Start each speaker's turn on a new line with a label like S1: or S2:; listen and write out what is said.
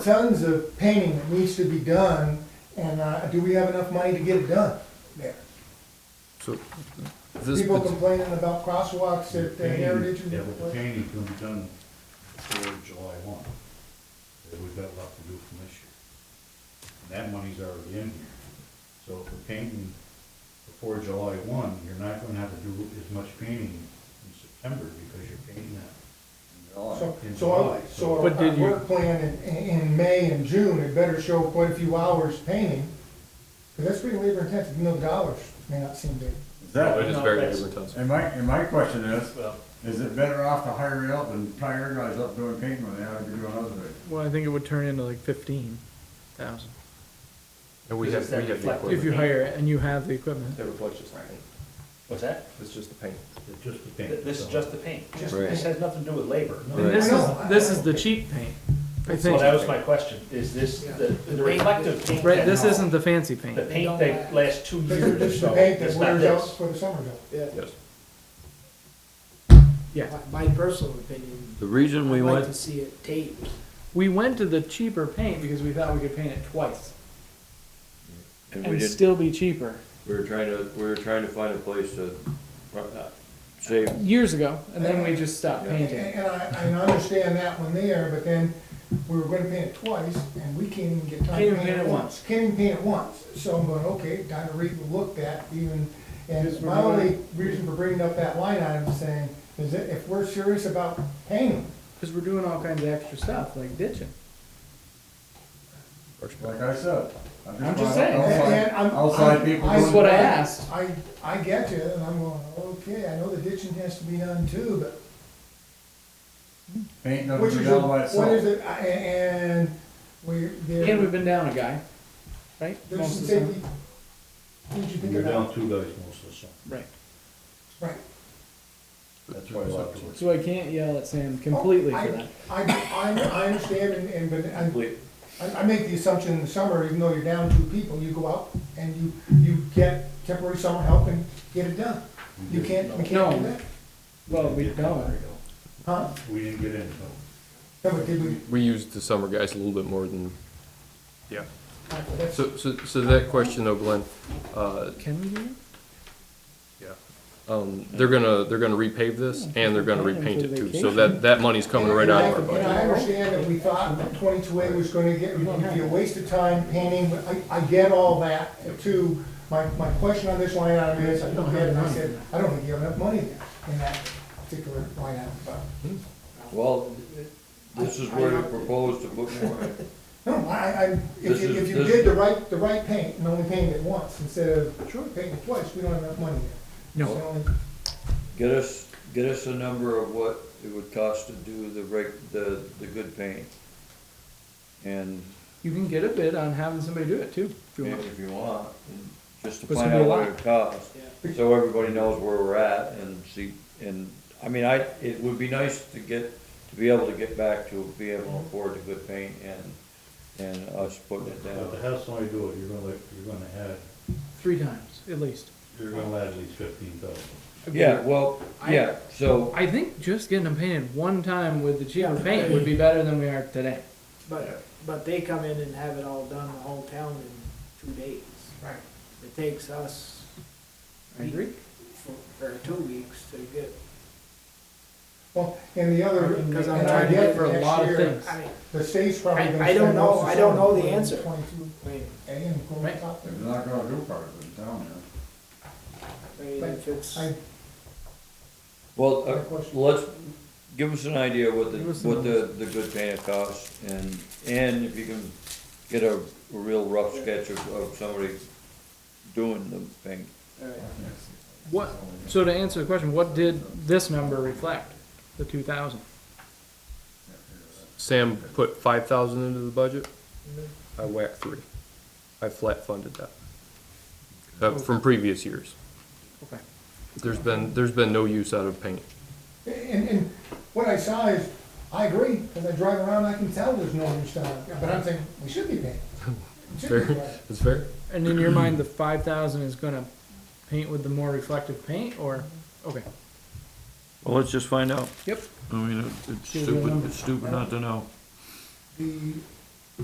S1: tons of painting that needs to be done, and uh, do we have enough money to get it done there?
S2: So this,
S1: People
S2: pat-
S1: complaining about crosswalks at the Heritage. and-
S3: Yeah, but the painting can be done before July one, that we've got left to do from this year. And that money's already in here, so if we're painting before July one, you're not gonna have to do as much painting in September, because you're painting that
S1: So,
S3: in July. In
S1: so, our-
S3: July,
S1: so
S3: so
S1: our-
S2: But
S1: our
S2: did you-
S1: work plan in, in May and June, it better show quite a few hours painting, because that's pretty labor intensive, even though dollars may not seem big.
S4: Is
S2: No, it is
S4: that,
S2: very labor intensive.
S4: and my, and my question is, is it better off to hire you up and tie your guys up doing painting when they have to do another thing?
S5: Well, I think it would turn into like fifteen thousand,
S2: And we have, we have the
S5: if you
S2: equipment.
S5: hire it and you have the equipment.
S6: That reflects just the paint. What's that?
S2: It's just the paint.
S3: it's just the
S6: Th-
S3: paint.
S6: This is
S3: so-
S6: just the paint.
S1: Just
S2: Right.
S6: This has nothing to do with labor.
S5: And this
S1: I
S5: is,
S1: know.
S5: this is the cheap paint, I
S6: So that was
S5: think.
S6: my question, is this, the, the reflective paint?
S5: Right,
S6: that-
S5: this isn't the fancy paint.
S6: The paint that lasts two
S1: This is
S6: years or
S1: just the
S6: so,
S1: paint that
S6: it's not
S1: wears out
S6: this.
S1: for the summer though.
S2: Yes.
S5: Yeah,
S7: My personal opinion,
S2: The reason
S7: I'd
S2: we
S7: like to
S2: went,
S7: see it taped.
S5: we went to the cheaper paint because we thought we could paint it twice
S8: And we
S5: and
S8: did,
S5: still be cheaper.
S8: we were trying to, we were trying to find a place to, uh, save,
S5: Years ago, and then we just stopped
S8: Yeah.
S1: And
S5: painting.
S1: and I, and I understand that one there, but then we were gonna paint it twice, and we can't even get time
S5: Can't
S1: to
S5: even
S1: paint it once. Can't even paint it once, so I'm going, okay, time to relook that even, and my only reason for bringing up that line item is saying, is that if we're serious about painting,
S5: Cause we're doing all kinds of extra stuff, like ditching.
S4: Like I said. I
S5: I'm
S4: want
S5: just saying.
S4: outside-
S1: And I'm-
S4: Outside
S1: I'm-
S4: people
S1: I-
S5: That's
S4: doing,
S5: what I asked.
S1: I, I get you, and I'm going, okay, I know the ditching has to be done too, but
S4: painting doesn't
S1: which
S4: do
S1: is,
S4: that
S1: your-
S4: by
S1: what
S4: itself.
S1: is it, I- and we, there,
S5: And we've been down a guy, right?
S1: there's
S5: Most
S1: some
S5: of the time.
S1: safety. Did you think
S3: You're
S1: about?
S3: down two guys most of the summer,
S5: Right,
S1: Right.
S3: that's why I like to work.
S5: so I can't yell at Sam completely for
S1: I-
S5: that.
S1: Oh, I, I, I understand and, and, but I,
S8: complete.
S1: I- I make the assumption in the summer, even though you're down two people, you go out and you, you get temporary summer help and get it done.
S5: Mm-hmm.
S1: You can't, we can't do
S5: No.
S1: that.
S5: Well, we don't.
S1: Huh?
S3: We didn't get into
S1: No, but did we?
S2: We used the summer guys a little bit more than, yeah.
S1: uh, that's-
S2: So, so, so that question though, Glenn, uh,
S5: Can we do it?
S2: um, they're gonna, they're gonna repave this and they're gonna repaint it too. So that, that money's coming right out of our
S1: And
S2: budget.
S1: I understand that we thought that twenty-two A was gonna get, it'd be a waste of time painting, but I, I get all that too. My, my question on this line item is, I looked at it and I said, I don't think you have enough money in that particular line item, but,
S8: Well, this is where you propose to put more in.
S1: no, I, I, I- if
S8: This
S1: you,
S8: is-
S1: if you
S8: this-
S1: did the right, the right paint and only painted it once instead of painting it twice, we don't have enough money there.
S5: No.
S1: It's the only-
S8: Get us, get us a number of what it would cost to do the reg, the, the good paint. And,
S5: You can get a bid on having somebody do it too, if you
S8: and
S5: want.
S8: if you want, and just to
S5: But it's
S8: find
S5: gonna
S8: out
S5: be a
S8: what it costs. So everybody knows where we're at and see, and, I mean, I, it would be nice to get, to be able to get back to be able to afford the good paint and, and us putting it down.
S3: But to have somebody do it, you're gonna, let- you're gonna add,
S5: Three times, at least.
S3: you're gonna add at least fifteen thousand.
S8: Yeah, well,
S5: I-
S8: yeah, so,
S5: I think just getting them painted one time with the cheaper paint would be better than we are today.
S7: But, but they come in and have it all done, the whole town in two days.
S1: Right.
S7: It takes us.
S5: I agree.
S7: week for- Or two weeks to get,
S1: Well, and the other, and
S5: Because I'm
S1: I
S5: trying to
S1: get
S5: get
S1: for
S5: for a lot
S1: next
S5: of
S1: year,
S5: things.
S7: I mean,
S1: the state's probably
S7: I-
S1: gonna
S7: I don't
S1: spend
S7: know-
S1: most
S7: I
S1: of
S7: don't
S1: summer
S7: know the
S1: putting
S7: answer.
S1: Twenty-two
S7: I mean,
S1: A and going
S5: Right.
S1: top there.
S4: They're not gonna do part of it down here.
S7: I mean, if it's,
S1: I,
S8: well, uh,
S1: My question.
S8: let's, give us an idea what the,
S5: Give us the
S8: what the, the good paint costs, and, and if you can get a real rough sketch of, of somebody doing the paint.
S7: alright.
S5: What, so to answer the question, what did this number reflect? The two thousand?
S2: Sam put five thousand into the budget. I whacked three. I flat funded that. Uh, from previous years.
S5: Okay.
S2: There's been, there's been no use out of paint.
S1: and, and what I saw is, I agree, because I drive around, I can tell there's no use down there, but I'm saying, we should be paying. We should be
S2: Fair,
S1: paying.
S2: it's fair.
S5: And in your mind, the five thousand is gonna paint with the more reflective paint or, okay.
S8: Well, let's just find out.
S5: Yep.
S8: I mean, it's
S5: Give me a stupid- number. it's
S8: stupid
S1: not
S8: to know.
S1: The